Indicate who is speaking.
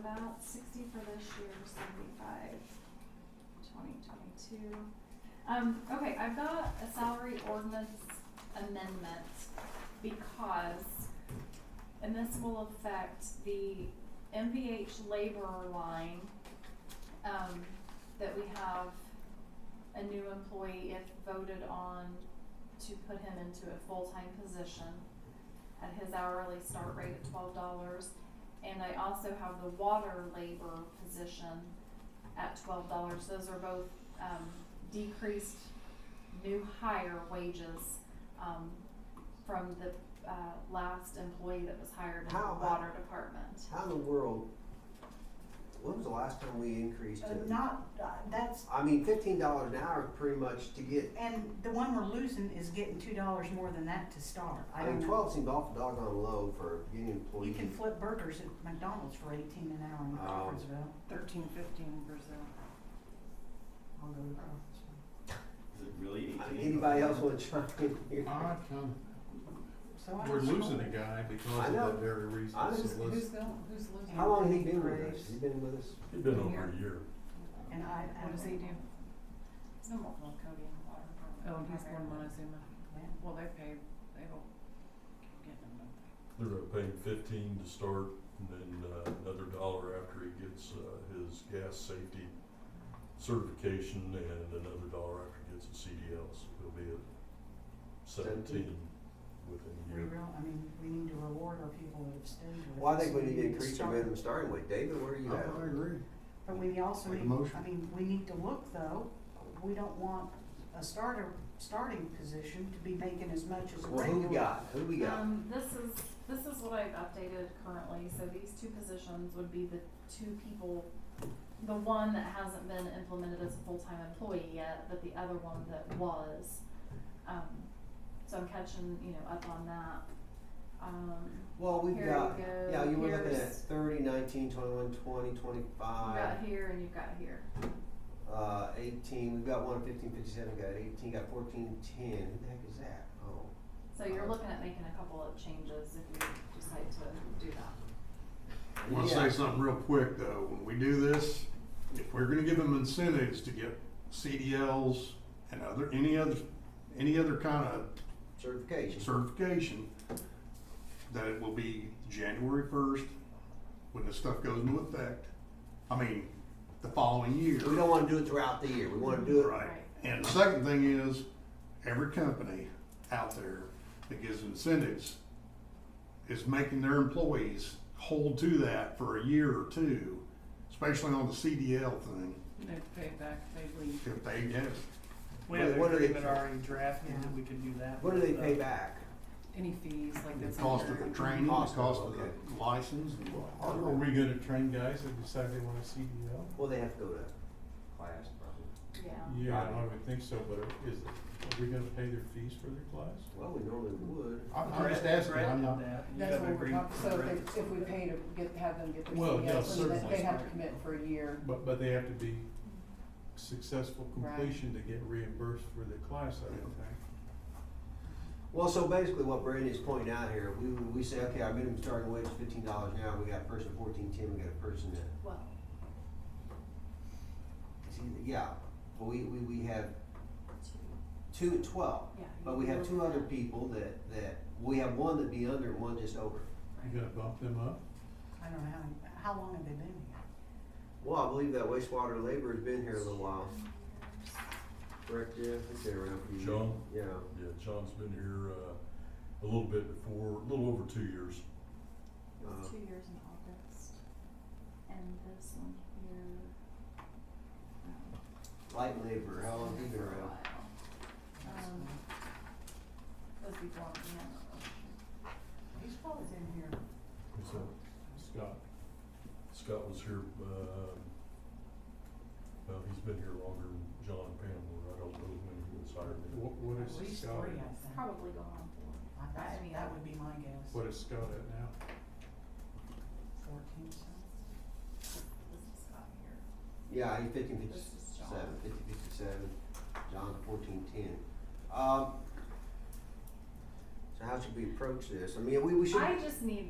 Speaker 1: about sixty for this year, seventy-five, twenty twenty-two. Um, okay, I've got a salary ordinance amendment because, and this will affect the MVH laborer line, um, that we have a new employee if voted on to put him into a full-time position at his hourly start rate at twelve dollars. And I also have the water labor position at twelve dollars. Those are both, um, decreased new hire wages, um, from the, uh, last employee that was hired in the
Speaker 2: How about-
Speaker 1: water department.
Speaker 2: How in the world, when was the last time we increased
Speaker 3: Uh,
Speaker 2: it?
Speaker 3: Not, uh, that's,
Speaker 2: I mean, fifteen dollars an hour is pretty much to get,
Speaker 3: and the one we're losing is getting two dollars more than that to start.
Speaker 2: I
Speaker 3: don't
Speaker 2: mean,
Speaker 3: know.
Speaker 2: twelve seemed awful doggone low for union
Speaker 3: You
Speaker 2: employees.
Speaker 3: can flip burgers at McDonald's for eighteen an hour in
Speaker 2: Oh.
Speaker 3: Crawfordsville.
Speaker 4: Thirteen fifteen in Brazil.
Speaker 3: I'll go to Crawfordsville.
Speaker 5: Is it really
Speaker 2: I mean,
Speaker 5: eighteen?
Speaker 2: Anybody else wanna chime in here?
Speaker 6: Odd comment.
Speaker 3: So I
Speaker 6: We're
Speaker 3: don't know.
Speaker 6: losing a guy
Speaker 2: I
Speaker 6: because of
Speaker 2: know.
Speaker 6: that very reason.
Speaker 2: I
Speaker 6: So
Speaker 2: just-
Speaker 6: let's-
Speaker 4: Who's the, who's losing?
Speaker 2: How long has he been with us? He's been with us?
Speaker 7: It's been over a year.
Speaker 3: And I, I
Speaker 4: What does he do?
Speaker 1: He's been working with Cody in the water department.
Speaker 4: Oh, he's born
Speaker 1: Primarily.
Speaker 4: Montezuma. Well, they paid, they don't get him, don't they?
Speaker 7: They're gonna pay him fifteen to start and then uh, another dollar after he gets uh, his gas safety certification and another dollar after he gets his CDL. So he'll be at seventeen within a
Speaker 3: We
Speaker 7: year.
Speaker 3: real, I mean, we need to reward our people that have stayed with us.
Speaker 2: Well, I think we need to
Speaker 3: need
Speaker 2: increase the
Speaker 3: start-
Speaker 2: minimum starting wage. David, where are
Speaker 3: Oh,
Speaker 2: you at?
Speaker 6: I agree.
Speaker 3: But we also
Speaker 6: Make a
Speaker 3: need, I
Speaker 6: motion.
Speaker 3: mean, we need to look though, we don't want a starter, starting position to be making as much as a
Speaker 2: Well, who we
Speaker 3: regular.
Speaker 2: got? Who we got?
Speaker 1: Um, this is, this is what I've updated currently, so these two positions would be the two people, the one that hasn't been implemented as a full-time employee yet, but the other one that was. Um, so I'm catching, you know, up on that. Um,
Speaker 2: Well, we've
Speaker 1: here you
Speaker 2: got,
Speaker 1: go.
Speaker 2: yeah, you were looking at
Speaker 1: Here's-
Speaker 2: thirty, nineteen, twenty-one, twenty,
Speaker 1: you've
Speaker 2: twenty-five,
Speaker 1: got here and you've got here.
Speaker 2: uh, eighteen. We've got one fifteen, fifty-seven, got eighteen, got fourteen, ten. Who the heck is that? Oh.
Speaker 1: So you're looking at making a couple of changes if you decide to do that.
Speaker 6: I want to
Speaker 2: Yeah.
Speaker 6: say something real quick though. When we do this, if we're going to give them incentives to get CDLs and other, any other, any other kind of
Speaker 2: certification.
Speaker 6: certification, that it will be January first, when this stuff goes into effect. I mean, the following year.
Speaker 2: We don't want to do it throughout the year. We want to do it.
Speaker 6: Right. And the second thing is, every company out there that gives incentives is making their employees hold to that for a year or two, especially on the CDL thing,
Speaker 4: They have to pay it back, if they leave.
Speaker 6: if they get it.
Speaker 8: We have an
Speaker 2: What do they-
Speaker 8: agreement already drafted that we can do that.
Speaker 2: What do they
Speaker 8: with, uh,
Speaker 2: pay back?
Speaker 4: Any fees, like that's.
Speaker 6: The cost of the training, the
Speaker 2: Cost of-
Speaker 6: cost of
Speaker 2: okay.
Speaker 6: the license. and
Speaker 9: Are
Speaker 6: all
Speaker 9: are we gonna train guys that decide they want a CDL?
Speaker 2: Well, they have to go to class, probably.
Speaker 1: Yeah.
Speaker 9: Yeah, I would think so, but are- is, it- are we gonna pay their fees for their class?
Speaker 2: Well, we normally would.
Speaker 6: I'm I'm
Speaker 8: Brett-
Speaker 6: just asking,
Speaker 8: Brett
Speaker 6: I'm
Speaker 8: did
Speaker 6: not,
Speaker 8: that. You
Speaker 4: That's
Speaker 8: have
Speaker 4: what
Speaker 8: an
Speaker 4: we're
Speaker 8: agreement
Speaker 4: talking,
Speaker 8: with
Speaker 4: so
Speaker 8: Brett.
Speaker 4: if, if we pay to get, have them get their E
Speaker 9: Well, yeah,
Speaker 4: CDLs, then they-
Speaker 9: certainly.
Speaker 4: they'd have to commit for a year.
Speaker 9: But, but they have to be successful
Speaker 4: Right.
Speaker 9: completion to get reimbursed for their class, I would think.
Speaker 2: Well, so basically what Brandy's pointing out here, we, we say, okay, our minimum starting wage is fifteen dollars an hour, we got a person at fourteen ten, we got a person at,
Speaker 1: Well,
Speaker 2: see, yeah, well, we, we, we have two at twelve.
Speaker 1: yeah.
Speaker 2: But we have two other people that, that, we have one that'd be under and one just over.
Speaker 9: You gonna bump them up?
Speaker 3: I don't know how, how long have they been here?
Speaker 2: Well, I believe that wastewater labor's been here a little while, correct, Jeff? It's been around for years.
Speaker 7: John?
Speaker 2: Yeah.
Speaker 7: Yeah, John's been here uh, a little bit before, a little over two years.
Speaker 1: It was
Speaker 2: Uh,
Speaker 1: two years in August. And this one here. um,
Speaker 2: Light labor, how long have you been
Speaker 1: for a
Speaker 2: around?
Speaker 1: while. Um, those people on the end of it.
Speaker 3: He's probably been here
Speaker 9: Is that Scott,
Speaker 7: Scott was here, uh, well, he's been here longer than John Pamela. I don't know when he was hired.
Speaker 9: what, what
Speaker 3: at
Speaker 9: is
Speaker 3: least three,
Speaker 9: Scott,
Speaker 3: I
Speaker 9: at?
Speaker 3: think.
Speaker 1: Probably going on for
Speaker 3: I- That's, that would be my guess.
Speaker 9: what is Scott at now?
Speaker 3: Fourteen, so.
Speaker 1: this is Scott here.
Speaker 2: Yeah, he's fifteen
Speaker 1: This
Speaker 2: fifty-seven,
Speaker 1: is John.
Speaker 2: fifty fifty-seven, John's fourteen ten. Um, so how should we approach this? I mean, we, we should,
Speaker 1: I just need